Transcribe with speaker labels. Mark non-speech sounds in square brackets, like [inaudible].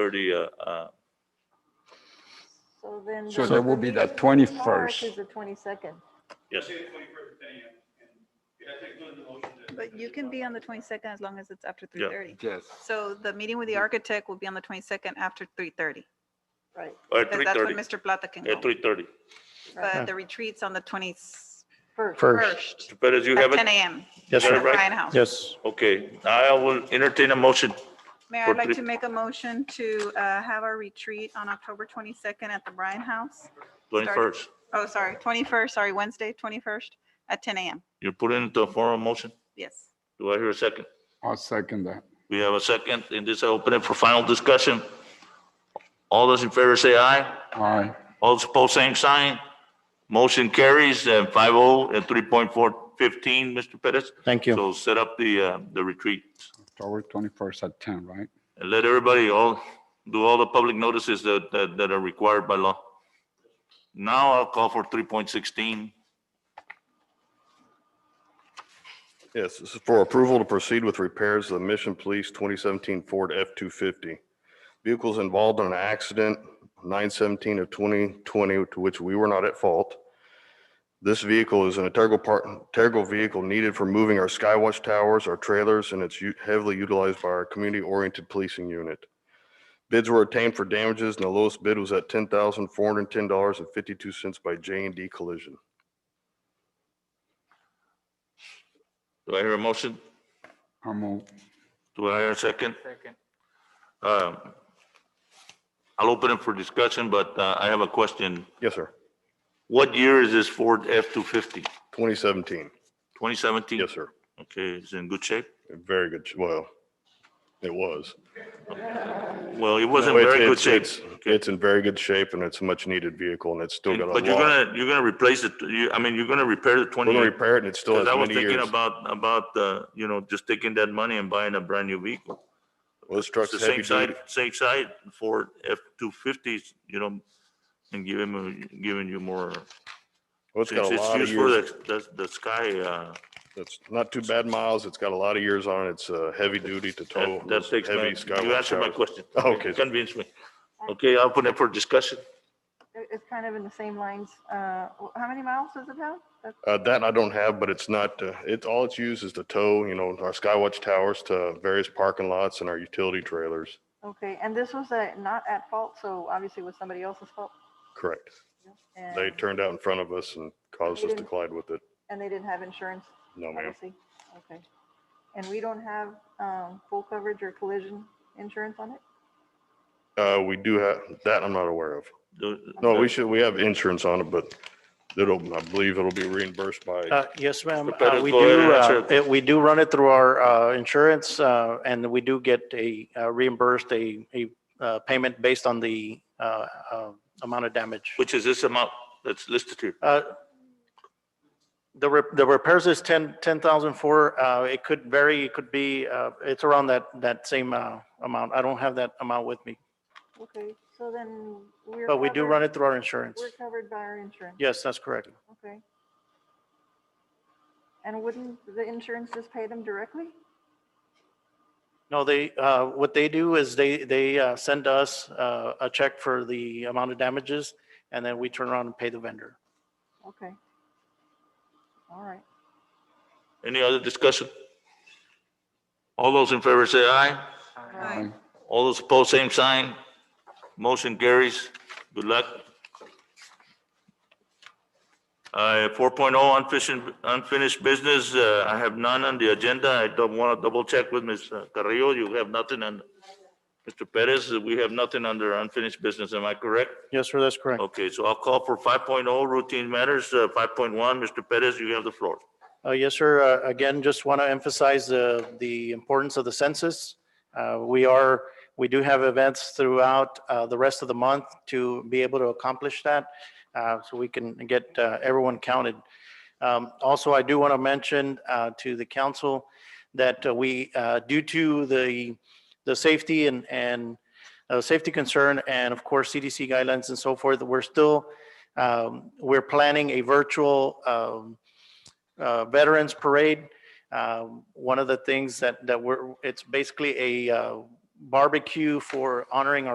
Speaker 1: 30, uh, uh,
Speaker 2: So then.
Speaker 3: So
Speaker 2: the-
Speaker 3: that would be the 21st.
Speaker 2: Is the twenty-second.
Speaker 1: yes.
Speaker 4: But you can be on the twenty-second as long as it's after
Speaker 1: Yeah.
Speaker 4: three thirty.
Speaker 3: Yes.
Speaker 4: So the meeting with the architect will be on the twenty-second after three thirty.
Speaker 2: Right,
Speaker 1: Or
Speaker 4: Because that's when
Speaker 1: 3:30,
Speaker 4: Mr. Plata can
Speaker 1: at
Speaker 4: go.
Speaker 1: 3:30.
Speaker 4: But the retreat's on the twenty-first
Speaker 2: first.
Speaker 5: First,
Speaker 1: Perez, you have
Speaker 4: at ten
Speaker 1: it?
Speaker 4: AM.
Speaker 5: yes,
Speaker 1: Got it
Speaker 4: at
Speaker 5: sir.
Speaker 1: right?
Speaker 4: Bryan House.
Speaker 5: Yes,
Speaker 1: Okay, I will entertain a motion.
Speaker 4: Mayor,
Speaker 1: for
Speaker 4: I'd like
Speaker 1: three-
Speaker 4: to make a motion to uh, have our retreat on October twenty-second at the Bryan House.
Speaker 1: 21st.
Speaker 4: Oh, sorry, twenty-first, sorry, Wednesday, twenty-first at ten AM.
Speaker 1: You put it into a formal motion.
Speaker 4: Yes.
Speaker 1: Do I hear a second?
Speaker 3: I'll second that.
Speaker 1: We have a second, and this I open it for final discussion. All those in favor say aye.
Speaker 3: Aye.
Speaker 1: All those opposed, same sign. Motion carries, uh, 5-0 and 3.415, Mr. Perez.
Speaker 5: thank you.
Speaker 1: So set up the, uh, the retreat
Speaker 3: October 21st at 10, right?
Speaker 1: and let everybody all, do all the public notices that, that, that are required by law. Now I'll call for 3.16.
Speaker 6: Yes, this is for approval to proceed with repairs of the Mission Police 2017 Ford F-250. Vehicles involved in an accident, 9/17 of 2020, to which we were not at fault. This vehicle is an integral part, integral vehicle needed for moving our Skywatch towers, our trailers, and it's u- heavily utilized by our community-oriented policing unit. Bids were obtained for damages, and the lowest bid was at $10,410.52 by j and D Collision.
Speaker 1: Do I hear a motion?
Speaker 3: I'll move.
Speaker 1: Do I hear a second? Second. I'll open it for discussion, but uh, I have a question.
Speaker 6: Yes, sir.
Speaker 1: What year is this Ford F-250?
Speaker 6: 2017.
Speaker 1: 2017?
Speaker 6: Yes, sir.
Speaker 1: Okay, it's in good shape?
Speaker 6: Very good. sh- Well, it was.
Speaker 1: Well, it wasn't
Speaker 6: No, it's-
Speaker 1: very good
Speaker 6: it's-
Speaker 1: shape.
Speaker 6: it's- It's in very good shape and it's a much needed vehicle and it's still got a lot.
Speaker 1: But you're gonna, you're gonna replace it, you, I mean, you're gonna repair the
Speaker 6: We're
Speaker 1: 20
Speaker 6: gonna repair it and it still has
Speaker 1: Because I was
Speaker 6: many
Speaker 1: thinking
Speaker 6: years.
Speaker 1: about, about, uh, you know, just taking that money and buying a brand new vehicle.
Speaker 6: Well, This
Speaker 1: It's
Speaker 6: truck's
Speaker 1: the
Speaker 6: heavy
Speaker 1: same side,
Speaker 6: duty.
Speaker 1: same side for F-250s, you know, and giving, you- giving you more.
Speaker 6: Well, it's
Speaker 1: It's
Speaker 6: got a
Speaker 1: it's
Speaker 6: lot of
Speaker 1: used for
Speaker 6: years.
Speaker 1: the, the, the sky, uh,
Speaker 6: It's not too bad miles. It's got a lot of years on it. It's uh heavy duty to tow.
Speaker 1: that, that
Speaker 6: those
Speaker 1: takes,
Speaker 6: heavy
Speaker 1: my- you
Speaker 6: Skywatch
Speaker 1: answered my
Speaker 6: towers.
Speaker 1: question.
Speaker 6: [laughs] Okay, sir.
Speaker 1: Convince me. Okay, I'll put it for discussion.
Speaker 2: It- It's kind of in the same lines. Uh, wh- how many miles does it have? That's
Speaker 6: Uh, that I don't have, but it's not, uh, it's, all it's used is to tow, you know, our Skywatch towers to various parking lots and our utility trailers.
Speaker 2: Okay, and this was a not at fault, so obviously it was somebody else's fault.
Speaker 6: Correct. They
Speaker 2: And,
Speaker 6: turned out in front of us and caused us to
Speaker 2: Didn't-
Speaker 6: collide with it.
Speaker 2: and they didn't have insurance,
Speaker 5: Oh,
Speaker 6: No, ma'am.
Speaker 2: obviously. Okay. And we don't have, um, full coverage or collision insurance on it?
Speaker 6: Uh, we do have, that I'm not aware of.
Speaker 1: The-
Speaker 6: No, we
Speaker 1: the-
Speaker 6: should, we have insurance on it, but it'll, I believe it'll be reimbursed by,
Speaker 5: Uh, Yes, ma'am.
Speaker 1: Mr. Perez,
Speaker 5: Uh, We
Speaker 1: go ahead and
Speaker 5: do, uh,
Speaker 1: answer.
Speaker 5: it- we do run it through our uh, insurance uh, and we do get a uh, reimbursed a, a uh, payment based on the uh, uh, amount of damage.
Speaker 1: Which is this amount that's listed here.
Speaker 5: Uh, The, rep- the repairs is 10, 10,004. uh, It could vary, it could be, uh, it's around that, that same uh, amount. I don't have that amount with me,
Speaker 2: Okay, so then we're.
Speaker 5: but we do
Speaker 2: covered-
Speaker 5: run it through our insurance.
Speaker 2: We're covered by our insurance?
Speaker 5: Yes, that's correct.
Speaker 2: Okay. And wouldn't the insurance just pay them directly?
Speaker 5: No, they, uh, what they do is they, they uh, send us uh, a check for the amount of damages, and then we turn around and pay the vendor.
Speaker 2: Okay. All right.
Speaker 1: Any other discussion? All those in favor say aye.
Speaker 2: Right.
Speaker 3: Aye.
Speaker 1: All those opposed, same sign. Motion carries. Good luck. Uh, 4.0 unfinished, unfinished business. Uh, I have none on the agenda. I don't want to double check with Ms. Carrillo. You have nothing on, Mr. Perez, we have nothing under unfinished business. Am I correct?
Speaker 5: Yes, sir, that's correct.
Speaker 1: Okay, so I'll call for 5.0 routine matters. Uh, 5.1, Mr. Perez, you have the floor.
Speaker 5: Uh, Yes, sir. Uh, Again, just want to emphasize the, the importance of the census. Uh, We are, we do have events throughout uh, the rest of the month to be able to accomplish that, uh, so we can get uh, everyone counted. Um, Also, I do want to mention uh, to the council that uh, we, uh, due to the, the safety and, and uh, safety concern, and of course CDC guidelines and so forth, we're still, um, we're planning a virtual um, uh, Veterans Parade. Um, One of the things that, that we're, it's basically a uh, barbecue for honoring our.